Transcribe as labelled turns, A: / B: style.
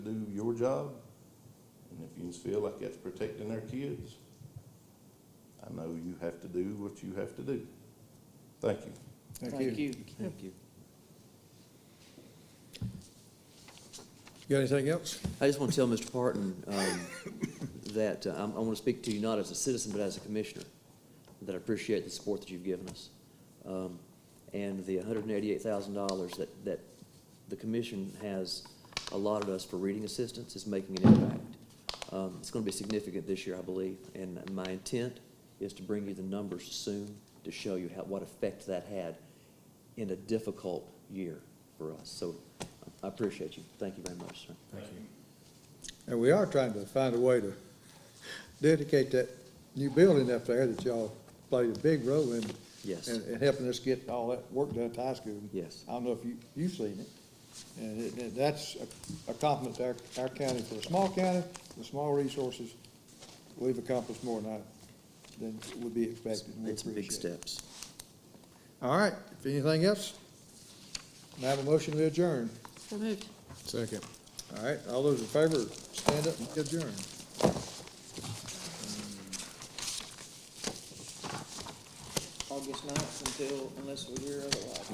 A: your job, and if you feel like that's protecting our kids, I know you have to do what you have to do. Thank you.
B: Thank you.
C: Thank you.
D: Got anything else?
C: I just want to tell Mr. Parton um, that uh, I'm- I want to speak to you not as a citizen, but as a commissioner, that I appreciate the support that you've given us. Um, And the $188,000 that, that the commission has allotted us for reading assistance is making an impact. Um, It's going to be significant this year, I believe, and my intent is to bring you the numbers soon to show you how, what effect that had in a difficult year for us. So I appreciate you. Thank you very much, sir.
D: And we are trying to find a way to dedicate that new building up there that y'all played a big role in.
C: Yes.
D: And, and helping us get all that work done at the high school.
C: Yes.
D: I don't know if you, you've seen it. And it, it- that's a- a compliment to our, our county, for a small county, with small resources, we've accomplished more than I, than would be expected, and we
C: It's
D: appreciate
C: big
D: it.
C: steps.
D: All right, if anything else, may I have a motion to adjourn?
E: So moved.
D: Second. All right, all those in favor, stand up and adjourn.
B: August ninth until, unless we hear otherwise.